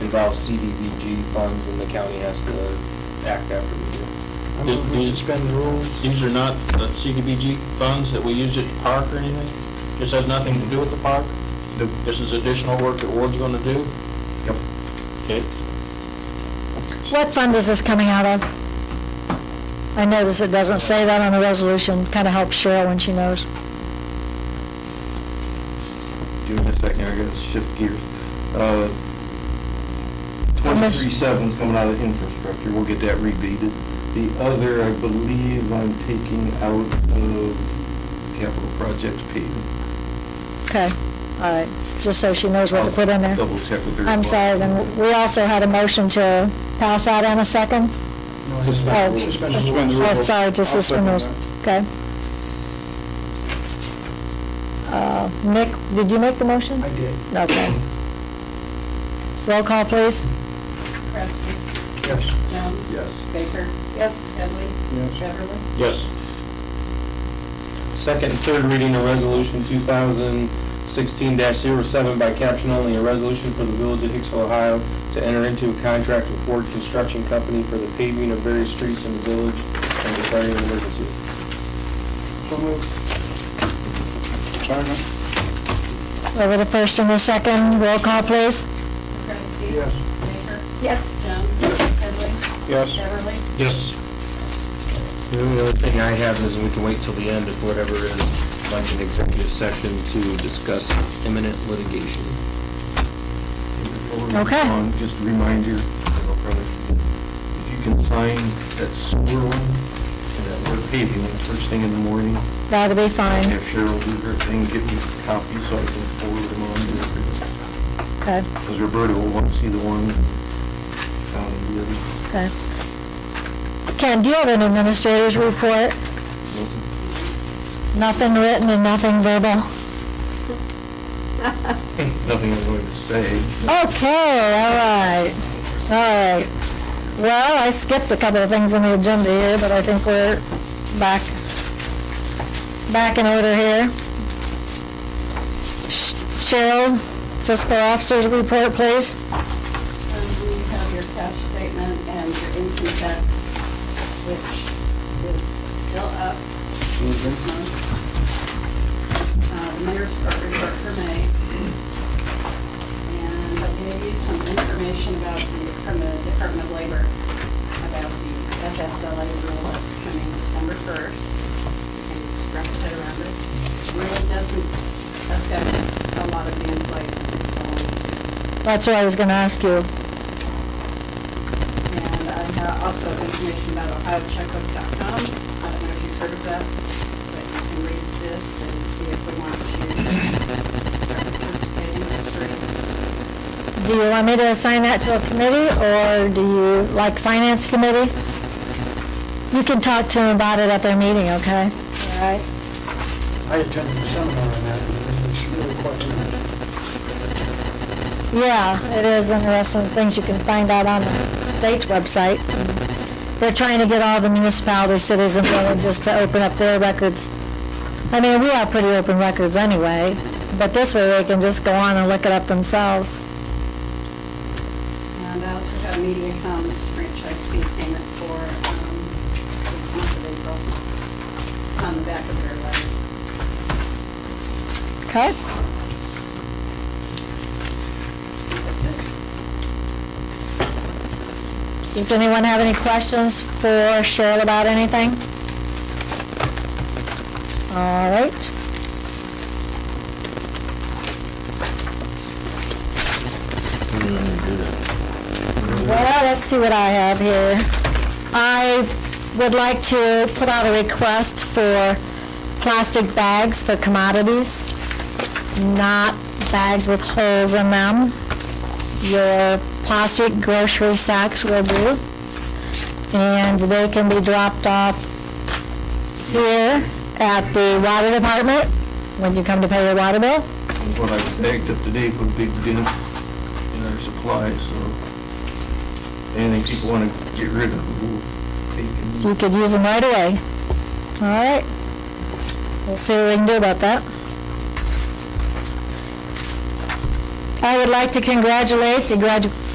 involves CDVG funds, and the county has to act after we do. I move we suspend the rules. These are not the CDBG funds that we used at the park or anything? This has nothing to do with the park? Nope. This is additional work that Ward's gonna do? Yep. Okay, What fund is this coming out of? I notice it doesn't say that on the resolution, kind of helps Cheryl when she knows. Give me a second, I gotta shift gears. Uh, Twenty-three seven's coming out of infrastructure, we'll get that rebated. The other, I believe, I'm taking out of capital projects paid. Okay, all right, just so she knows what to put in there. Double check with her. I'm sorry, then we also had a motion to pass out in a second? No, Oh, Suspend the just- rules. Oh, sorry, to suspend rules, okay. Uh, Nick, did you make the motion? I did. Okay. Roll call, please. Kratzky, Yes. Jones. Yes. Baker. Yes. Headley. Yes. Beverly. yes. Second and third reading of Resolution 2016-07 by caption only, a resolution for the Village of Hicksville, Ohio, to enter into a contract with Ford Construction Company for the paving of various streets in the village and declaring an emergency. So moved. Sergeant? Over the first and the second, roll call, please. Kratzky. Yes. Baker. Yes. Jones. Headley. Yes. Beverly. Yes. The only other thing I have is, and we can wait till the end if whatever is, like an executive session to discuss imminent litigation. Okay. Just a reminder, I'll probably forget. if you can sign that sewer one and that we're paving one first thing in the morning, That'll be and fine, if Cheryl do her thing, get me copies so I can forward them on to everybody. okay, Because Roberta will want to see the one, um, the other. okay. Ken, do you have an administrator's report? Nothing written and nothing verbal? Nothing I'm going to say. Okay, all right, all right. Well, I skipped a couple of things on the agenda here, but I think we're back, back in order here. Sh- Cheryl, fiscal officer's report, please. Um, we have your cash statement and your income tax, which is still up this month. Uh, the mayor's court report for May. And I gave you some information about the, from the Department of Labor about the FSLA rule that's coming December first. And wrap that around it. Really doesn't affect a lot of the employees, so That's what I was gonna ask you. and I have also information about ohiocheckbook.com. I don't know if you've heard of that, but you can read this and see if we want to start participating It's free. Do you want me to assign that to a committee, or do you, like finance committee? You can talk to them about it at their meeting, okay? All right. I attended the seminar on that, and it's really quite interesting. Yeah, it is interesting, things you can find out on the state's website. They're trying to get all the municipalities, cities, and villages to open up their records. I mean, we have pretty open records anyway, but this way they can just go on and look it up themselves. And I also got MediaCom's franchise fee payment for um, the month of April. It's on the back of their letter. Okay? That's it. Does anyone have any questions for Cheryl about anything? All right. Well, let's see what I have here. I would like to put out a request for plastic bags for commodities, not bags with holes in them your plastic grocery sacks will do. And they can be dropped off here at the water department when you come to pay your water bill. And What I bagged up today put a big dent in our supplies, so anything people want to get rid of, we'll take So and you could use them right away. All right. We'll see what we can do about that. I would like to congratulate the gradu-